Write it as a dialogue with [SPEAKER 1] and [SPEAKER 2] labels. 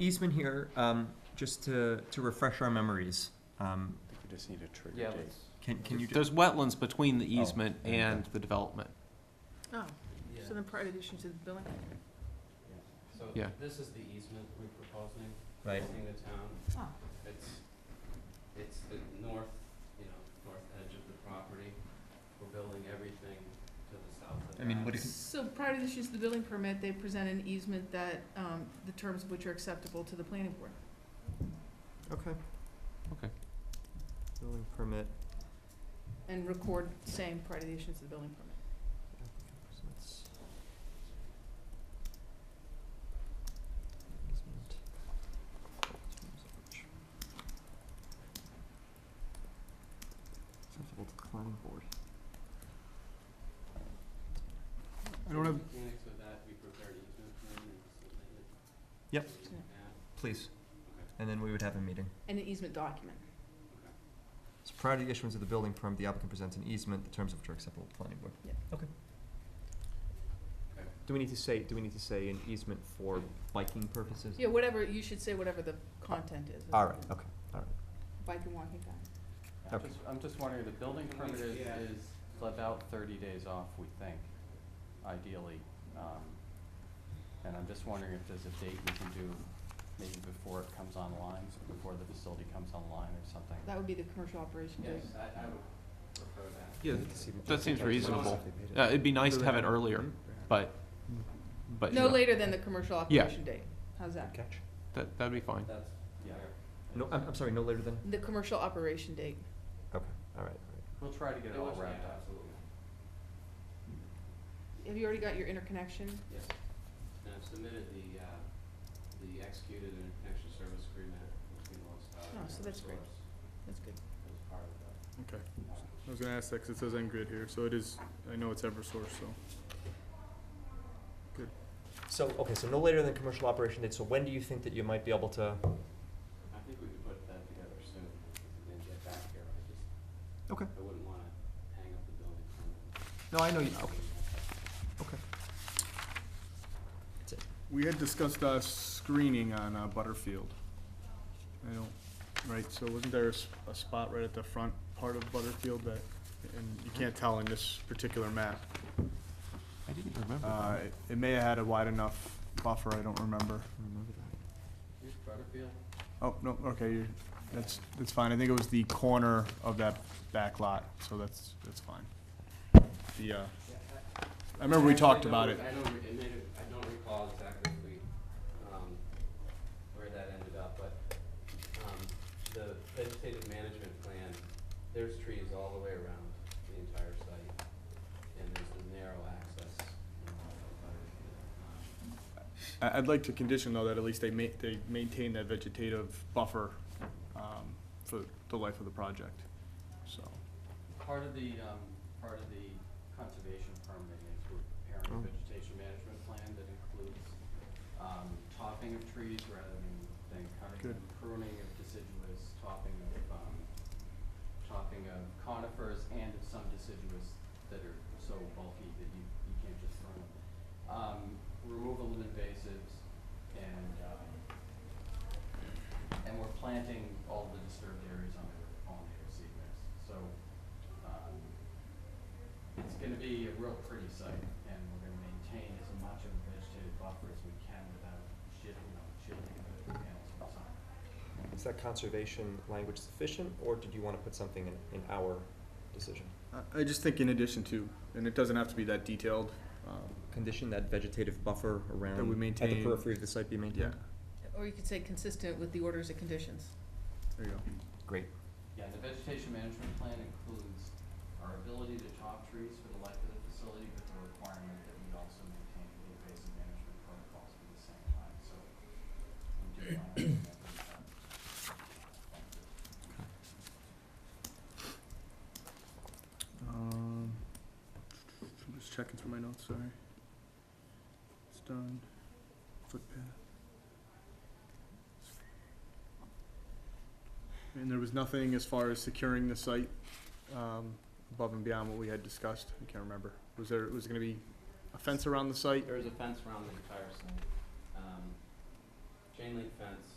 [SPEAKER 1] easement here, um, just to, to refresh our memories, um,
[SPEAKER 2] I think we just need a trigger
[SPEAKER 3] Yeah,
[SPEAKER 2] date.
[SPEAKER 3] let's-
[SPEAKER 1] can, can you,
[SPEAKER 4] There's wetlands between the
[SPEAKER 2] Oh,
[SPEAKER 4] easement
[SPEAKER 2] okay.
[SPEAKER 4] and the development.
[SPEAKER 5] Oh,
[SPEAKER 3] yeah.
[SPEAKER 5] so then part of the issue is the billing?
[SPEAKER 3] So
[SPEAKER 4] Yeah.
[SPEAKER 3] this is the easement we're proposing,
[SPEAKER 1] right,
[SPEAKER 3] between the town.
[SPEAKER 5] Oh,
[SPEAKER 3] It's, it's the north, you know, north edge of the property. We're building everything to the south of that.
[SPEAKER 1] I mean, what if-
[SPEAKER 5] so prior to the issue is the billing permit, they present an easement that, um, the terms of which are acceptable to the planning board.
[SPEAKER 1] okay.
[SPEAKER 4] Okay.
[SPEAKER 1] Building permit.
[SPEAKER 5] And record same prior to the issuance of the building permit.
[SPEAKER 1] applicant presents easement, terms of which- Acceptable to planning board.
[SPEAKER 4] I don't have-
[SPEAKER 3] Mechanics of that, we prepared easement plan and submitted it.
[SPEAKER 1] Yep.
[SPEAKER 3] So we have-
[SPEAKER 1] Please. And then we would have a meeting.
[SPEAKER 5] And an easement document.
[SPEAKER 3] okay.
[SPEAKER 1] So prior to the issuance of the building permit, the applicant presents an easement, the terms of which are acceptable to planning board.
[SPEAKER 5] Yep.
[SPEAKER 1] Okay.
[SPEAKER 3] Okay.
[SPEAKER 1] Do we need to say, do we need to say an easement for biking purposes?
[SPEAKER 5] Yeah, whatever, you should say whatever the content is.
[SPEAKER 1] All right, okay, all
[SPEAKER 5] Bike and walking path.
[SPEAKER 1] right, okay.
[SPEAKER 2] I'm just wondering, the building
[SPEAKER 3] Can we- permit is- yeah. is
[SPEAKER 2] about thirty days off, we think, ideally. um, And I'm just wondering if there's a date we can do, maybe before it comes online, before the facility comes online or something.
[SPEAKER 5] That would be the commercial operation date.
[SPEAKER 3] Yes, I, I would prefer that.
[SPEAKER 4] Yeah, that seems
[SPEAKER 3] reasonable.
[SPEAKER 4] Uh, it'd be nice to have it earlier, but, but,
[SPEAKER 5] No
[SPEAKER 4] yeah,
[SPEAKER 5] later than the commercial operation date. How's that?
[SPEAKER 1] Catch.
[SPEAKER 4] that, that'd be fine.
[SPEAKER 3] That's
[SPEAKER 2] Yeah.
[SPEAKER 3] fair.
[SPEAKER 1] No, I'm, I'm sorry, no later than?
[SPEAKER 5] The commercial operation date.
[SPEAKER 1] Okay, all right, all right.
[SPEAKER 2] We'll try to get it all
[SPEAKER 3] was-
[SPEAKER 2] wrapped
[SPEAKER 3] yeah,
[SPEAKER 2] up.
[SPEAKER 3] Absolutely,
[SPEAKER 5] Have you already got your interconnection?
[SPEAKER 3] yes. And I've submitted the, uh, the executed interconnection service agreement between Lowestoft and
[SPEAKER 5] Oh, so that's great.
[SPEAKER 3] Eversource
[SPEAKER 5] That's good.
[SPEAKER 3] As part of that.
[SPEAKER 6] Okay. I was gonna ask that 'cause it says Engrid here, so it is, I know it's Eversource, so.
[SPEAKER 1] So, okay, so no later than commercial operation date, so when do you think that you might be able to?
[SPEAKER 3] I think we could put that together soon, and then get back here, I just,
[SPEAKER 1] Okay.
[SPEAKER 3] I wouldn't wanna hang up the building permit.
[SPEAKER 1] No, I know you, okay, okay.
[SPEAKER 6] We had discussed, uh, screening on, uh, Butterfield. I don't, right, so wasn't there a, s- a spot right at the front part of Butterfield that, and you can't tell in this particular map.
[SPEAKER 4] I didn't remember
[SPEAKER 6] Uh,
[SPEAKER 4] that.
[SPEAKER 6] it- it may have had a wide enough buffer, I don't remember.
[SPEAKER 1] Remember that.
[SPEAKER 3] Here's Butterfield,
[SPEAKER 6] Oh, no, okay, you're, that's, that's fine, I think it was the corner of that back lot, so that's, that's fine. The, uh, I remember we
[SPEAKER 3] actually
[SPEAKER 6] talked
[SPEAKER 3] don't
[SPEAKER 6] about
[SPEAKER 3] re-
[SPEAKER 6] it.
[SPEAKER 3] I don't, re- it made, it- I don't recall exactly if we, um, where that ended up, but, um, the vegetative management plan, there's trees all the way around the entire site, and there's a narrow access, you know, of Butterfield. Um,
[SPEAKER 6] I, I'd like to condition though that at least they ma- they maintain that vegetative buffer, um, for the life of the project, so.
[SPEAKER 2] Part of the, um, part of the conservation permit is we're preparing
[SPEAKER 1] Oh.
[SPEAKER 2] a vegetation management plan that includes, um, topping of trees rather than, than cutting
[SPEAKER 6] Good.
[SPEAKER 2] and pruning of deciduous, topping of, um, topping of conifers and of some deciduous that are so bulky that you, you can't just throw them. Um, removal of invasives and, um, and we're planting all the disturbed areas on the, on the seed mix. So, um, it's gonna be a real pretty site, and we're gonna maintain as much of a vegetative buffer as we can without shit, you know, shielding the panels from sun.
[SPEAKER 1] Is that conservation language sufficient, or did you wanna put something in, in our decision?
[SPEAKER 6] I, I just think in addition to, and it doesn't have to be that detailed, um,
[SPEAKER 1] Condition that vegetative buffer around.
[SPEAKER 6] That we
[SPEAKER 1] At the
[SPEAKER 6] maintain-
[SPEAKER 1] periphery of the site be
[SPEAKER 6] yeah,
[SPEAKER 1] maintained?
[SPEAKER 5] Or you could say consistent with the orders and conditions.
[SPEAKER 6] there you go.
[SPEAKER 1] Great.
[SPEAKER 2] Yeah, the vegetation management plan includes our ability to top trees for the life of the facility, but the requirement that we also maintain the invasive management protocols at the same time, so we do wanna have that. be done.
[SPEAKER 6] Um, I'm just checking through my notes, sorry. It's done. Footpath. And there was nothing as far as securing the site, um, above and beyond what we had discussed, I can't remember. Was there, was it gonna be a fence around the site?
[SPEAKER 3] There is a fence around the entire site. Um,
[SPEAKER 2] chain link fence,